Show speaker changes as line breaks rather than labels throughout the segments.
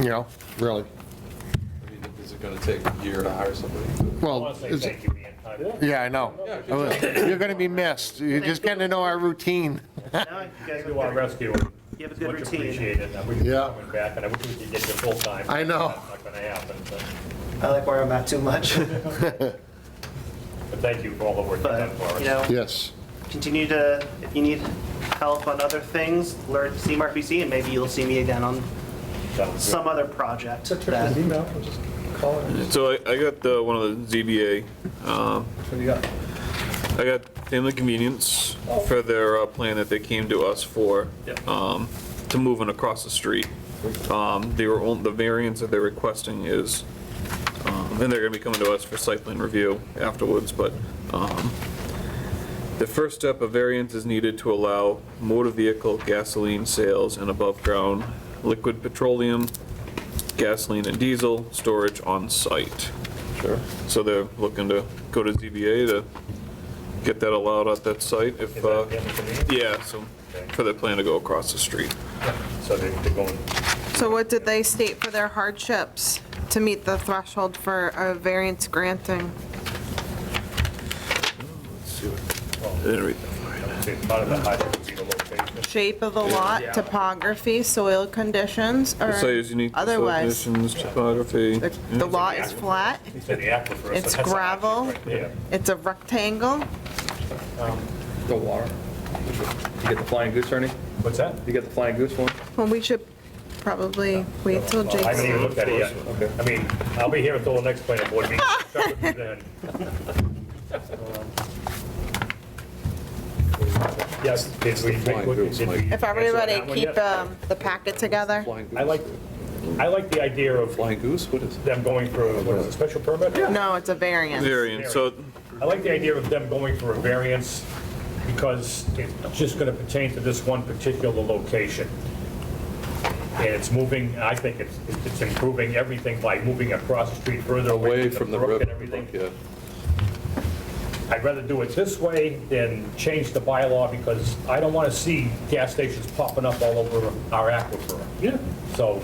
you know, really.
I mean, is it gonna take a year to hire somebody?
I
Well,
want to say
it's-
thank you, Ian. I do.
yeah, I know.
Yeah, good job.
You're going to be missed. You're just getting to know our routine.
No, you guys
You are
are good.
rescue.
You have a good
Much
routine.
appreciated. I wish you
Yeah.
were coming back, and I wish we could get you full-time.
I know.
That's not going to happen, but,
I like where I'm at too much,
but thank you for all the work you've
but,
done for us.
you know,
Yes.
continue to, if you need help on other things, learn CMRPC, and maybe you'll see me again on
Sounds good.
some other project
Except for his
that,
email, or just call it.
So I, I got the, one of the ZBA,
That's what you got.
um,
Oh.
I got Inland Convenience for their uh, plan that they came to us for,
Yep.
Uh,
um, to move in across the street. Um, they were, on- the variance that they're requesting is, um, and they're gonna be coming to us for site plan review afterwards, but, um, the first step of variance is needed to allow motor vehicle gasoline sales and above-ground liquid petroleum, gasoline and diesel storage on site.
Sure.
So they're looking to go to ZBA to get that allowed at that site if,
Is
uh,
that the end of the meeting?
yeah, so, for their plan to go across the street.
So they- they're going,
So what did they state for their hardships to meet the threshold for a variance granting?
they thought of the hydrant would be the location.
Shape of the lot, topography, soil conditions, or
So it's unique soil
otherwise?
conditions, topography.
The the lot is flat,
He said the aquifer. so that's
It's
a hardship
gravel.
right there.
it's a rectangle,
The water. You get the flying goose, Ernie?
What's that?
You get the flying goose one?
well, we should probably wait till
I haven't even
Jake's.
looked at it yet.
Okay.
I mean, I'll be here until the next planning board meeting. Check with you then. Um, Yes, did we, did we- did we?
If
answer
everybody
that one
keep
yet?
um, the packet together,
Flying goose?
I like, I like the idea of
Flying goose, what is it?
them going through, what is it, special permit?
no, it's a variance.
Variance, so
I like the idea of them going for a variance because it's just going to pertain to this one particular location. And it's moving, I think it's, it's improving everything by moving across the street further
Away from the
brook
river.
and everything.
Yeah.
I'd rather do it this way than change the bylaw because I don't want to see gas stations popping up all over our aquifer. Yeah. So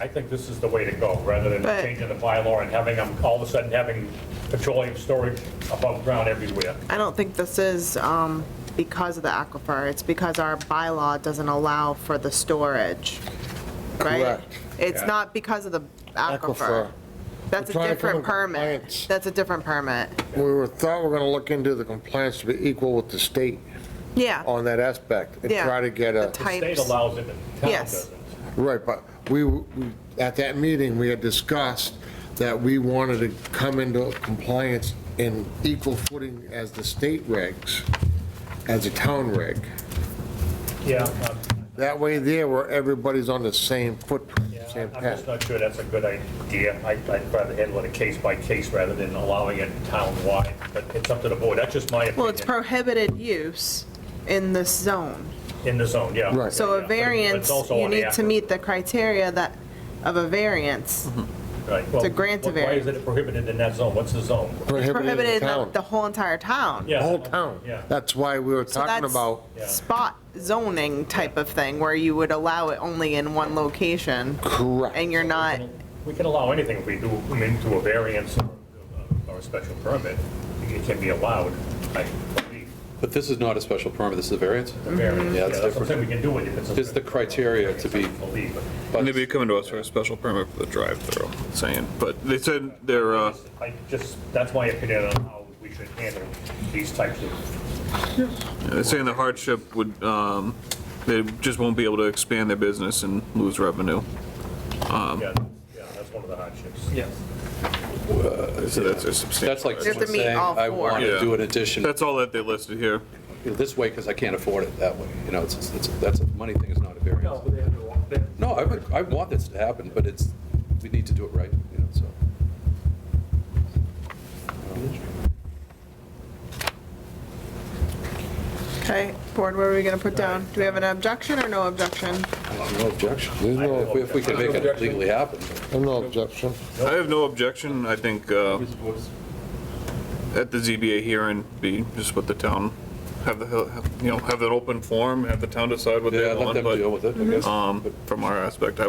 I think this is the way to go, rather than
But-
changing the bylaw and having them, all of a sudden having petroleum storage above ground everywhere.
I don't think this is um, because of the aquifer, it's because our bylaw doesn't allow for the storage, right?
Correct.
It's not because of the aquifer.
Aquifer.
That's a
We're trying to
different
come in
permit.
compliance.
That's a different permit.
We were, thought we were going to look into the compliance to be equal with the state
Yeah,
on that aspect and
Yeah.
try to get a,
The type.
State
Types.
allows it, the town
Yes.
doesn't.
right, but we, we- at that meeting, we had discussed that we wanted to come into compliance in equal footing as the state regs, as a town reg.
Yeah, um,
That way there, where everybody's on the same footprint,
yeah,
same
I'm just
path.
not sure that's a good idea. I- I'd rather handle it case by case rather than allowing it town-wide, but it's up to the board. That's just my opinion.
well, it's prohibited use in this zone.
In the zone, yeah.
Right.
So
Yeah, but
a
it's
variance,
also
you
on the
need to
aquifer.
meet the criteria that, of a variance.
Right.
to grant a
Well, Why is it prohibited in that zone? What's the zone?
in
Prohibited in the-
town.
the whole entire town.
Yeah.
The whole town.
Yeah.
That's why we were
So
talking
that's
about,
Yeah.
Spot zoning type of thing, where you would allow it only in one location,
correct,
and you're not,
We can allow anything if we do, I mean, to a variance or- or a special permit. It can be allowed, I believe.
But this is not a special permit, this is a variance.
The variance,
Yeah, it's
what I'm
different.
saying, we can do it if it's. a-
Just the criteria to be-
I believe, but
they'd be coming to us for a special permit for the drive-through, saying, but they said they're, uh,
I just, that's my opinion on how we should handle these types of,
they're saying the hardship would, um, they just won't be able to expand their business and lose revenue.
Um,
yeah, yeah, that's one of the hardships.
Yes.
So that's a substantial.
That's like
You have to
someone
meet
saying,
all
I
four."
want to
Yeah.
do an addition
That's all that they listed here.
this way because I can't afford it that way. You know, it's, it's- it's, that's, a money thing is not a variance.
but they have to walk there.
No, I would, I want this to happen, but it's, we need to do it right, you know, so.
okay, board, what are we gonna put down? Do we have an objection or no objection?
No objection.
There's no-
If we- if we can make it legally happen.
no objection.
I have no objection, I think, uh, at the ZBA hearing, be just with the town, have the, have- you know, have an open forum, have the town decide what
Yeah,
they
let
want, Uh-huh.
them deal
but,
with it, I guess.
um, from our aspect, I